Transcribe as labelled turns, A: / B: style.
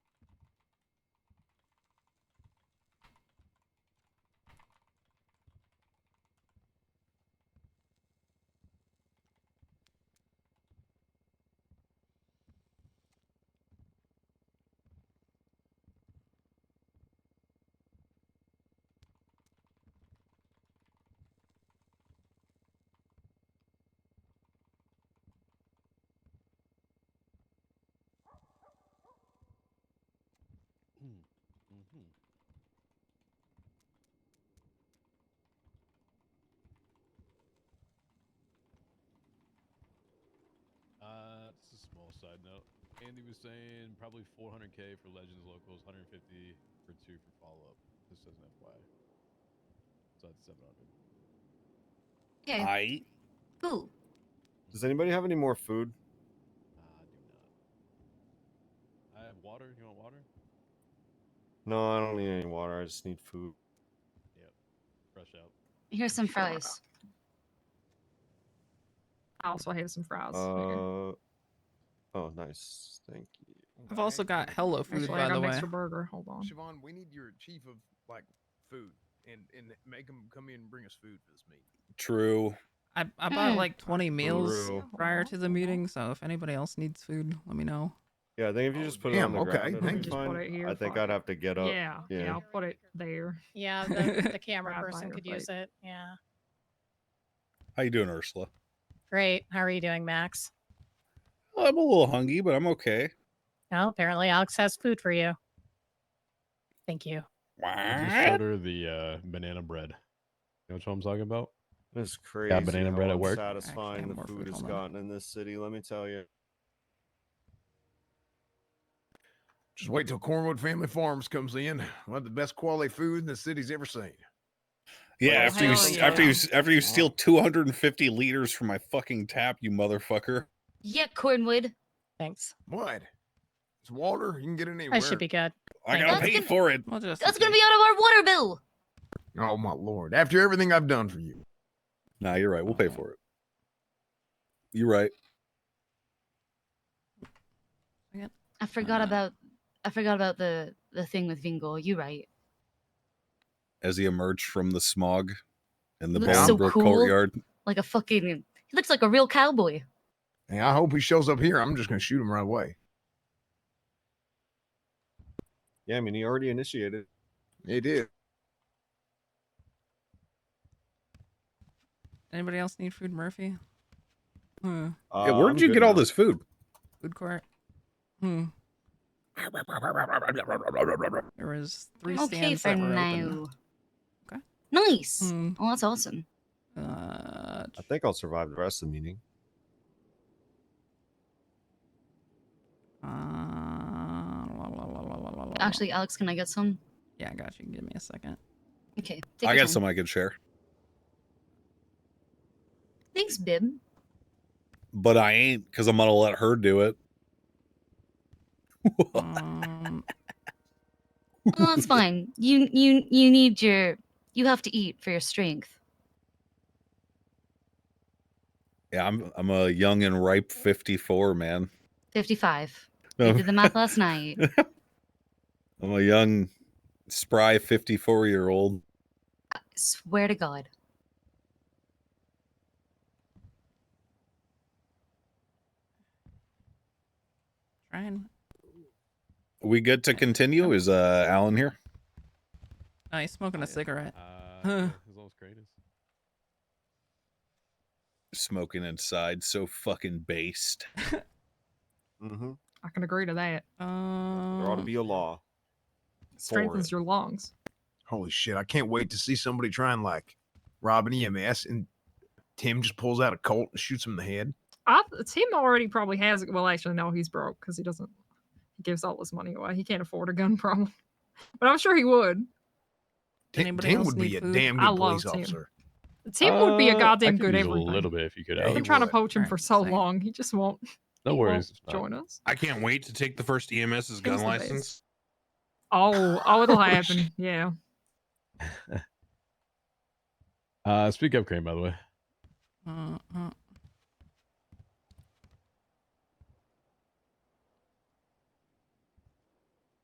A: Mm-hmm. Uh, it's a small side note. Andy was saying probably 400k for Legends locals, 150 for two for follow up. This doesn't FY. So that's 700.
B: Okay,
C: I
B: cool.
D: Does anybody have any more food?
A: Ah, I do not. I have water. You want water?
D: No, I don't need any water. I just need food.
A: Fresh out.
B: Here's some fries.
E: I also have some fries. Here.
D: Uh, oh, nice. Thank you.
F: I've also got Hello Food,
E: Actually,
F: by
E: I got
F: the
E: an
F: way.
E: extra burger. Hold on.
G: Siobhan, we need your chief of like food and and make him come in and bring us food for this meeting.
C: true.
F: I, I bought
B: Mm.
F: like 20 meals
D: True.
F: prior to the meeting, so if anybody else needs food, let me know.
D: Yeah, I think if you
G: Oh,
D: just put
G: damn,
D: it on the
G: okay,
D: ground, it'll
G: thank
D: be
G: you.
E: Just put
D: fine.
E: it here,
D: I think
E: fine.
D: I'd have to get up.
E: yeah, yeah,
D: yeah.
E: I'll put it there.
H: Yeah, the, the camera
E: Right by
H: person
E: your
H: could
E: plate.
H: use it. Yeah.
C: How you doing, Ursula?
H: Great. How are you doing, Max?
C: I'm a little hungry, but I'm okay.
H: Well, apparently Alex has food for you. Thank you.
A: I just
C: What?
A: order the uh, banana bread. You know what I'm talking about?
D: That's crazy.
A: banana
D: how
A: bread at work.
F: Actually, I
D: Satisfying
F: have
D: the
F: more
D: food
F: food,
D: has
F: hold on.
D: gotten in this city. Let me tell you.
G: Just wait till Cornwood Family Farms comes in. One of the best quality food the city's ever seen.
C: Yeah,
F: Oh,
C: after you,
F: hell
C: s after you,
F: yeah.
C: s- after you steal 250 liters from my fucking tap, you motherfucker.
B: Yeah, Cornwood.
H: Thanks.
G: What? It's water. You can get it anywhere.
H: I should be good.
C: I
H: Thank
C: gotta
B: you.
C: pay for it.
F: Well, just
B: That's gonna be out of our water bill.
G: Oh my lord! After everything I've done for you,
C: Nah, you're right. We'll pay for it. You're right.
B: I forgot
C: Uh-huh.
F: Uh.
B: about I forgot about the the thing with Vingo. You're right.
C: As he emerged from the smog in the
B: Looks
G: so
C: Bolingbroke
B: cool.
C: courtyard.
B: Like a fucking he looks like a real cowboy.
G: and I hope he shows up here. I'm just gonna shoot him right away.
D: Yeah, I mean, he already initiated.
G: It is.
F: Anybody else need food, Murphy? Hmm.
D: Uh,
C: yeah, where
D: I'm
C: did you
D: good
C: get all
D: now.
C: this food?
F: Food court. Hmm. There was three
B: Okay
F: stands
B: for
F: that were
B: now.
F: open. Okay.
B: Nice.
F: Hmm.
B: Oh, that's awesome.
F: Uh,
D: I think I'll survive the rest of the meeting.
F: uh, la, la, la, la, la, la, la.
B: Actually, Alex, can I get some?
F: yeah, I got you. Give me a second.
B: Okay. take
C: I
B: your
C: got
B: time.
C: some I could share,
B: Thanks, Bib.
C: but I ain't because I'm gonna let her do it.
F: Um,
B: Well, that's fine. You you you need your you have to eat for your strength.
C: yeah, I'm I'm a young and ripe 54 man.
B: Fifty five. I
C: No,
B: did the math last night.
C: I'm a young, spry 54 year old.
B: Swear to God.
F: trying.
C: We good to continue? Is uh Alan here?
F: Oh, he's smoking
A: Yeah.
F: a cigarette.
A: Uh,
F: Huh.
A: yeah, As long as great is.
C: Smoking inside, so fucking based.
D: Mm-hmm.
E: I can agree to that.
F: Um,
D: There ought to be a law.
E: Strengthens
D: it.
E: your lungs.
G: Holy shit! I can't wait to see somebody trying like rob an EMS, and Tim just pulls out a Colt and shoots him in the head.
E: I Tim already probably has it. Well, actually, no, he's broke because he doesn't. He gives all his money away. He can't afford a gun problem. But I'm sure he would.
G: Tim,
F: Anybody
G: Tim
F: else
G: would be
F: need
G: a
F: food?
G: damn
E: I
G: good
E: love
G: police
E: Tim.
G: officer.
E: Tim would be a
A: Uh, I
E: goddamn
A: could
E: good
A: use
E: everything.
A: A little bit if you could.
G: Yeah,
E: I've
G: he
E: been
A: Alex.
E: trying to
G: would.
E: poach him
F: Alright,
E: for
F: just a
E: so
F: second.
E: long. He just won't.
A: No
E: he
A: worries.
E: won't
A: it's fine.
E: Join us.
C: I can't wait to take the first E EMS's
E: gun He's the best. license. Oh, oh, it'll happen. Yeah.
A: Uh, speak up, Crane. By the way.
F: Uh, uh,